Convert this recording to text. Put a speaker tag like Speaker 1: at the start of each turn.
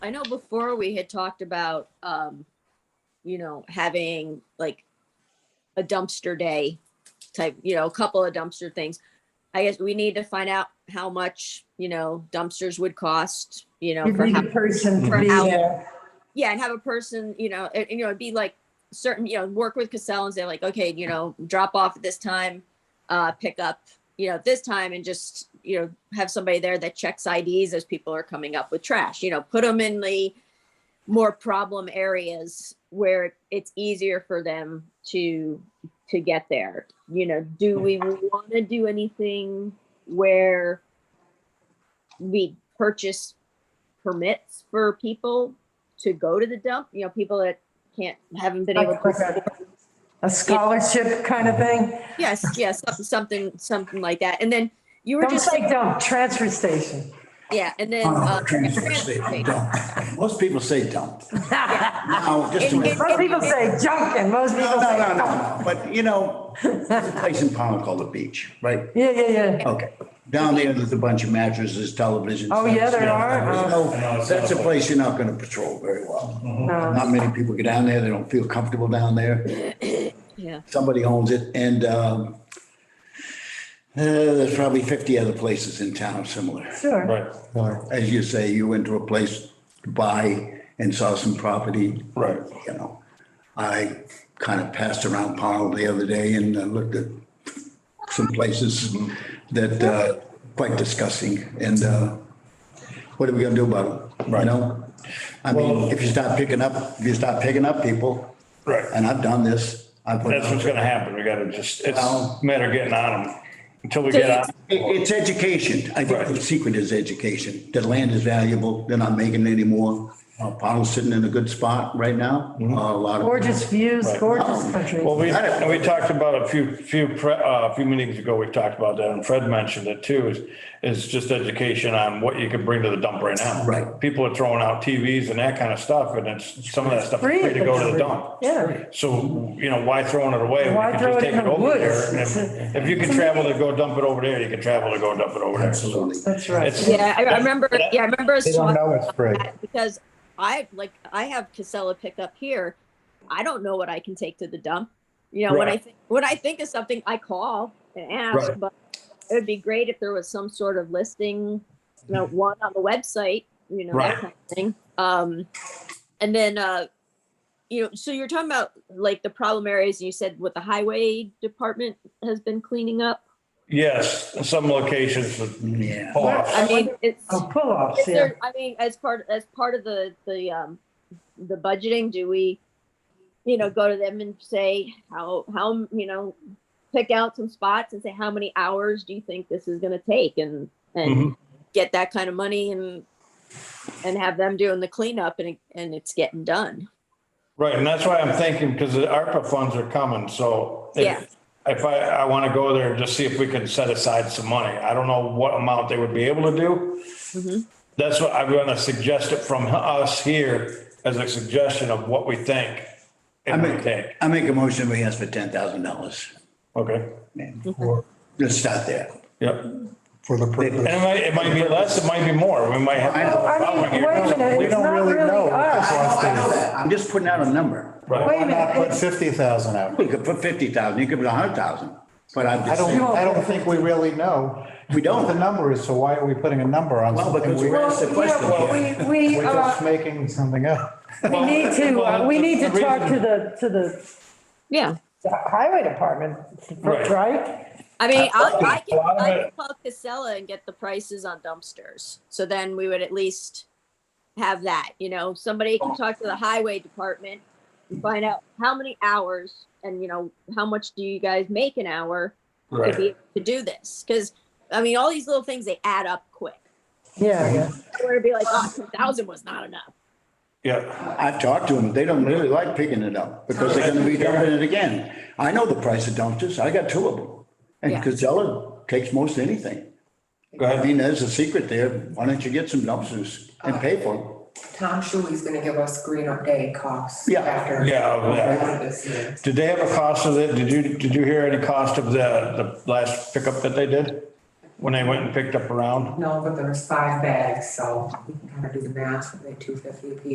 Speaker 1: I know before we had talked about, um, you know, having like a dumpster day type, you know, a couple of dumpster things. I guess we need to find out how much, you know, dumpsters would cost, you know,
Speaker 2: You'd
Speaker 1: for
Speaker 2: need
Speaker 1: how,
Speaker 2: a person
Speaker 1: for
Speaker 2: to be
Speaker 1: how-
Speaker 2: there.
Speaker 1: yeah, and have a person, you know, and, and, you know, it'd be like certain, you know, work with Cassell and say like, okay, you know, drop off at this time, uh, pick up, you know, this time and just, you know, have somebody there that checks IDs as people are coming up with trash, you know, put them in the more problem areas where it's easier for them to, to get there. You know, do we want to do anything where we purchase permits for people to go to the dump, you know, people that can't, haven't been able
Speaker 2: Like
Speaker 1: to.
Speaker 2: a- A scholarship kind of thing.
Speaker 1: Yes, yes, something, something, something like that. And then you were
Speaker 2: Don't
Speaker 1: just,
Speaker 2: say dump, transfer station.
Speaker 1: yeah, and then.
Speaker 3: Oh,
Speaker 1: uh,
Speaker 3: transfer station, dump. Most people say dump. Now, just a minute.
Speaker 2: Most people say junk and most
Speaker 3: No,
Speaker 2: people
Speaker 3: no,
Speaker 2: say
Speaker 3: no, no,
Speaker 2: dump.
Speaker 3: no, but you know, there's a place in Pownell called the beach, right?
Speaker 2: Yeah, yeah, yeah.
Speaker 3: Okay. Down there, there's a bunch of mattresses, televisions.
Speaker 2: Oh, yeah, there are. Oh.
Speaker 3: There's
Speaker 4: I know,
Speaker 3: no-
Speaker 4: it's
Speaker 3: That's a
Speaker 4: awful.
Speaker 3: place you're not gonna patrol very well.
Speaker 2: No.
Speaker 3: Not many people get down there. They don't feel comfortable down there.
Speaker 1: Yeah,
Speaker 3: Somebody owns it and, um, uh, there's probably fifty other places in town similar.
Speaker 2: Sure.
Speaker 4: Right.
Speaker 3: As you say, you went to a place to buy and saw some property.
Speaker 4: Right.
Speaker 3: You know, I kind of passed around Powell the other day and uh, looked at some places
Speaker 4: Mm-hmm.
Speaker 3: that uh, quite disgusting. And uh, what are we gonna do about it? You
Speaker 4: Right.
Speaker 3: know? I mean,
Speaker 4: Well-
Speaker 3: if you start picking up, if you start picking up people.
Speaker 4: Right.
Speaker 3: And I've done this. I put-
Speaker 4: That's what's gonna happen. We gotta just, it's
Speaker 3: Well-
Speaker 4: a matter of getting on them until we get on.
Speaker 3: It- It's education. I think the
Speaker 4: Right.
Speaker 3: secret is education. The land is valuable. They're not making it anymore. Uh, Powell's sitting in a good spot right now.
Speaker 5: Mm-hmm.
Speaker 3: Uh, A lot of,
Speaker 2: Gorgeous views, gorgeous country.
Speaker 4: Um, Well, we, and we talked about a few, few, pre- uh, a few meetings ago, we talked about that and Fred mentioned it too, is, is just education on what you can bring to the dump right now.
Speaker 3: Right.
Speaker 4: People are throwing out TVs and that kind of stuff and it's, some of that stuff is
Speaker 2: Free
Speaker 4: free to
Speaker 2: at
Speaker 4: go
Speaker 2: the
Speaker 4: to the
Speaker 2: dump.
Speaker 4: dump.
Speaker 2: Yeah.
Speaker 4: So, you know, why throwing it away? when you
Speaker 2: Why
Speaker 4: can
Speaker 2: throw
Speaker 4: just
Speaker 2: it
Speaker 4: take
Speaker 2: in the
Speaker 4: over
Speaker 2: woods?
Speaker 4: there?
Speaker 2: It's
Speaker 4: And If you can travel to go dump it over there, you can travel to go dump it over there.
Speaker 3: absolutely.
Speaker 2: That's right.
Speaker 4: It's-
Speaker 1: yeah, I I remember, yeah, I remember.
Speaker 5: They don't know it's free.
Speaker 1: Because I, like, I have Casella pickup here. I don't know what I can take to the dump. You know, when I,
Speaker 4: Right.
Speaker 1: think when I think of something, I call and ask,
Speaker 4: Right.
Speaker 1: but it would be great if there was some sort of listing, you know, one on the website, you know,
Speaker 4: Right.
Speaker 1: that kind of thing. Um, and then, uh, you know, so you're talking about like the problem areas, you said what the highway department has been cleaning up.
Speaker 4: Yes, in some locations with
Speaker 3: Yeah.
Speaker 4: off.
Speaker 1: I mean, it's.
Speaker 2: Oh, pull-offs,
Speaker 1: Is
Speaker 2: yeah.
Speaker 1: there, I mean, as part, as part of the, the, um, the budgeting, do we, you know, go to them and say, how, how, you know, pick out some spots and say, how many hours do you think this is gonna take and, and get that kind of money and, and have them doing the cleanup and, it- and it's getting done.
Speaker 4: Right, and that's why I'm thinking, because the ARPA funds are coming, so. if-
Speaker 1: Yeah.
Speaker 4: If I, I want to go there and just see if we can set aside some money. I don't know what amount they would be able to do.
Speaker 2: Mm-hmm.
Speaker 1: Mhm.
Speaker 4: That's what I'm going to suggest it from us here as a suggestion of what we think.
Speaker 3: I
Speaker 4: It might
Speaker 3: make,
Speaker 4: take,
Speaker 3: I make a motion, we ask for ten thousand dollars.
Speaker 4: okay?
Speaker 5: For
Speaker 3: Let's start there.
Speaker 4: Yep. And
Speaker 5: for the
Speaker 4: it
Speaker 5: purpose.
Speaker 4: might, it might be less, it might be more. We might have.
Speaker 3: I know.
Speaker 2: I mean, wait a minute,
Speaker 5: We
Speaker 2: it's
Speaker 5: don't
Speaker 2: not
Speaker 5: really
Speaker 2: really
Speaker 5: know what
Speaker 2: us.
Speaker 5: this wants
Speaker 3: I know
Speaker 5: to-
Speaker 3: that. I'm just putting out a number.
Speaker 2: Wait
Speaker 5: Why
Speaker 2: a
Speaker 5: not put
Speaker 2: minute,
Speaker 5: fifty thousand out?
Speaker 3: We could put fifty thousand, you could put a hundred thousand, but I'm
Speaker 5: I
Speaker 3: just
Speaker 5: don't,
Speaker 3: saying,
Speaker 5: I don't think we really know.
Speaker 3: We don't.
Speaker 5: what The number is, so why are we putting a number on
Speaker 3: Well,
Speaker 5: something?
Speaker 3: because
Speaker 5: we-
Speaker 3: we're-
Speaker 2: well,
Speaker 3: That's the
Speaker 2: you
Speaker 3: question
Speaker 2: know,
Speaker 3: here.
Speaker 2: we, we,
Speaker 5: We're just
Speaker 2: uh,
Speaker 5: making something up.
Speaker 2: we need to, uh, we need to
Speaker 4: Well, the
Speaker 2: talk to
Speaker 4: reason-
Speaker 2: the, to the
Speaker 1: Yeah.
Speaker 2: highway department,
Speaker 4: Right.
Speaker 2: right?
Speaker 1: I mean, I'll, I
Speaker 4: A
Speaker 1: can,
Speaker 4: lot of
Speaker 1: I
Speaker 4: it-
Speaker 1: can call Casella and get the prices on dumpsters. So then we would at least have that, you know, somebody can talk to the highway department and find out how many hours and, you know, how much do you guys make an hour to be,
Speaker 4: Right.
Speaker 1: able to do this? Cause I mean, all these little things, they add up quick.
Speaker 2: Yeah, yeah.
Speaker 1: I want to be like, oh, 2,000 was not enough.
Speaker 4: Yeah,
Speaker 3: I've talked to them, they don't really like picking it up because they're gonna be dumping it again. I know the price of dumpsters, I got two of them. And
Speaker 1: Yeah.
Speaker 3: Casella takes most anything.
Speaker 4: go
Speaker 3: I
Speaker 4: ahead.
Speaker 3: mean, there's a secret there, why don't you get some dumpsters and pay for them?
Speaker 6: Tom Shuey's gonna give us green up day costs.
Speaker 3: Yeah.
Speaker 6: After.
Speaker 4: Yeah, yeah.
Speaker 6: This year.
Speaker 4: Did they have a cost of it? Did you, did you hear any cost of the, the last pickup that they did? when they went and picked up around?
Speaker 6: No, but there was five bags, so we can kind of do the math, like two fifty a piece.